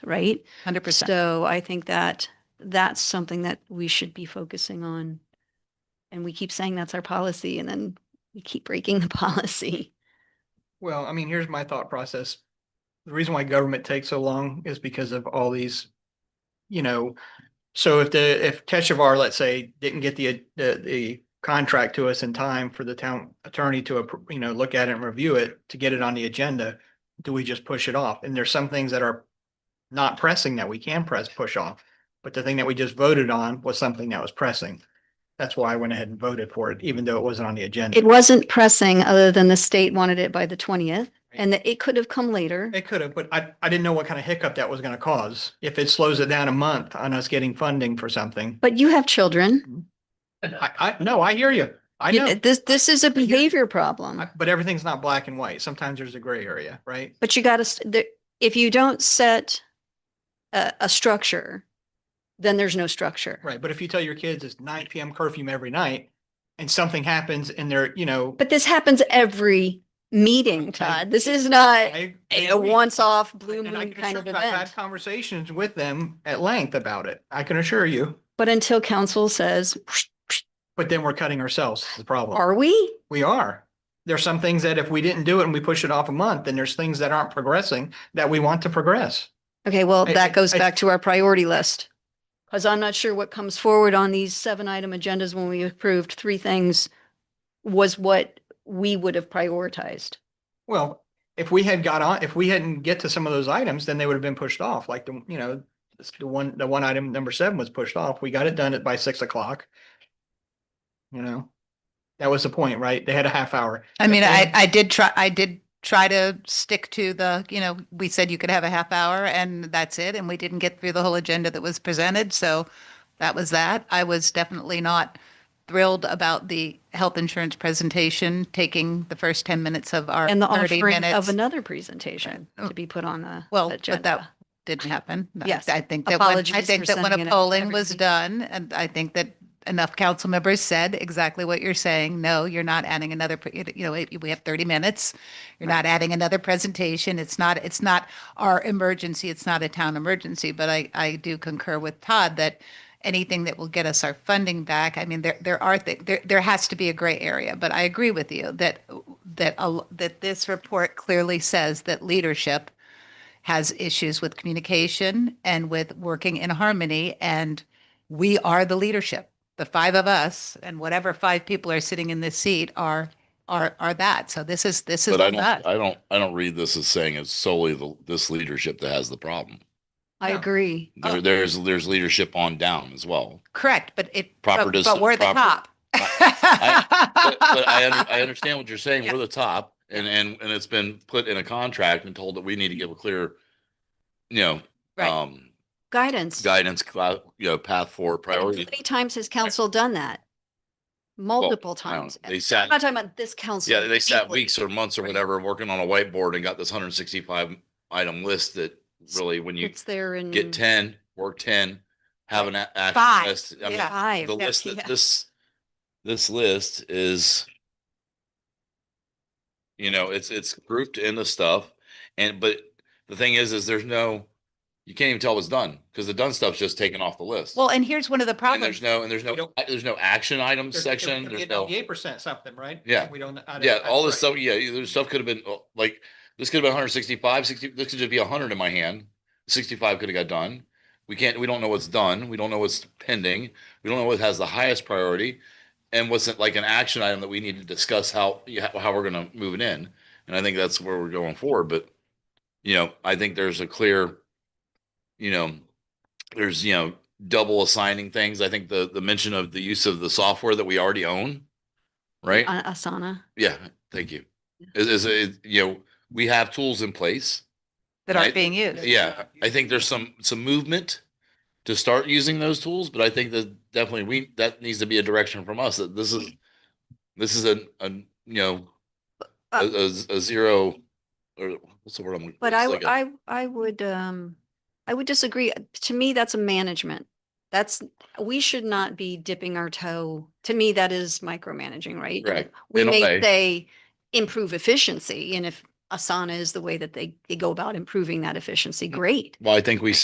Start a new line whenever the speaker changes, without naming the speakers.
right?
Hundred percent.
So I think that that's something that we should be focusing on. And we keep saying that's our policy and then we keep breaking the policy.
Well, I mean, here's my thought process. The reason why government takes so long is because of all these, you know, so if the, if Teshavar, let's say, didn't get the, the, the contract to us in time for the town attorney to, appro- you know, look at it and review it, to get it on the agenda, do we just push it off? And there's some things that are not pressing that we can press, push off. But the thing that we just voted on was something that was pressing. That's why I went ahead and voted for it, even though it wasn't on the agenda.
It wasn't pressing other than the state wanted it by the twentieth and that it could have come later.
It could have, but I, I didn't know what kind of hiccup that was gonna cause. If it slows it down a month on us getting funding for something.
But you have children.
I, I, no, I hear you. I know,
This, this is a behavior problem.
I- but everything's not black and white. Sometimes there's a gray area, right?
But you gotta, st- the- if you don't set a, a structure, then there's no structure.
Right, but if you tell your kids it's nine PM curfew every night and something happens and they're, you know.
But this happens every meeting, Todd. This is not
I- I
a
agree.
once-off blue
And I
moon
can
kind
assure
of
you I've had
event.
Conversations with them at length about it. I can assure you,
But until council says,
but then we're cutting ourselves is the problem.
are we?
We are. There's some things that if we didn't do it and we push it off a month, then there's things that aren't progressing that we want to progress.
Okay, well,
I-
that
I-
goes
I-
back to our priority list. Because I'm not sure what comes forward on these seven item agendas when we approved three things was what we would have prioritized.
Well, if we had got on, if we hadn't get to some of those items, then they would have been pushed off, like the, you know, this- the one, the one item, number seven was pushed off. We got it done at by six o'clock. You know, that was the point, right? They had a half hour.
I mean, I,
Okay.
I did try, I did try to stick to the, you know, we said you could have a half hour and that's it. And we didn't get through the whole agenda that was presented. So that was that. I was definitely not thrilled about the health insurance presentation, taking the first 10 minutes of our
And the
30
offering of
minutes.
another presentation to be put on the
Well, but that
agenda.
didn't happen. I-
Yes.
I think that when, I
Apologies
think
for
that when
sending it
a
out to
polling was
everybody.
done, and I think that enough council members said exactly what you're saying. No, you're not adding another, pre- you know, it- we have 30 minutes. You're not adding another presentation. It's not, it's not our emergency. It's not a town emergency. But I, I do concur with Todd that anything that will get us our funding back, I mean, there, there are, thi- there, there has to be a gray area. But I agree with you that, that, a l- that this report clearly says that leadership has issues with communication and with working in harmony. And we are the leadership. The five of us and whatever five people are sitting in this seat are are are that. So this is this is
But I don't, uh,
that.
I don't, I don't read this as saying it's solely the, this leadership that has the problem.
I
no.
agree.
Oh.
There, there's, there's leadership on down as well.
Correct, but it
Proper
but,
dis-
but we're the
proper-
top.
But, but I, under- I understand what you're saying. We're the top and, and, and it's been put in a contract and told that we need to give a clear, you know,
Right.
um,
Guidance.
guidance, cla- you know, path forward priority.
How many times has council done that? Multiple
I don't-
times.
They
I'm not
sat,
talking about this council.
yeah, they sat
weekly.
weeks or months or whatever, working on a whiteboard and got this hundred and sixty-five item list that really, when you
It's there in.
get ten, work ten, have an. a- action
mm. Five,
list. I mean,
yeah.
Five.
the
yeah,
list
yeah.
that this, this list is. You know, it's, it's grouped into stuff and, but the thing is, is there's no, you can't even tell what's done because the done stuff's just taken off the list.
well, and here's one of the
And
problems.
there's no, and there's
We
no,
don't-
there's no action items section. There's no,
Eight percent something, right?
Yeah.
We don't. I don't-
yeah,
I-
all this
right.
stuff, yeah, there's stuff could have been uh, like, this could have been 165, 60, this could just be hundred in my hand. Sixty-five could have got done. We can't, we don't know what's done. We don't know what's pending. We don't know what has the highest priority. And what's it like an action item that we need to discuss how, yeah, how we're gonna move it in. And I think that's where we're going forward, but, you know, I think there's a clear, you know, there's, you know, double assigning things. I think the, the mention of the use of the software that we already own, right?
Uh, Asana.
Yeah, thank you. Is, is, is, you know, we have tools in place.
that
I-
aren't being used.
Yeah, I think there's some, some movement to start using those tools, but I think that definitely we, that needs to be a direction from us that this is, this is a, a, you know, a, a, a zero or what's the word I'm?
Uh, But
it's
I,
like
w-
a-
I, I would, um, I would disagree. To me, that's a management. That's, we should not be dipping our toe. To me, that is micromanaging, right?
Right.
We
in a
may
way.
say improve
Mm.
efficiency and if Asana is the way that they, they go about improving that efficiency, great.
Well, I think we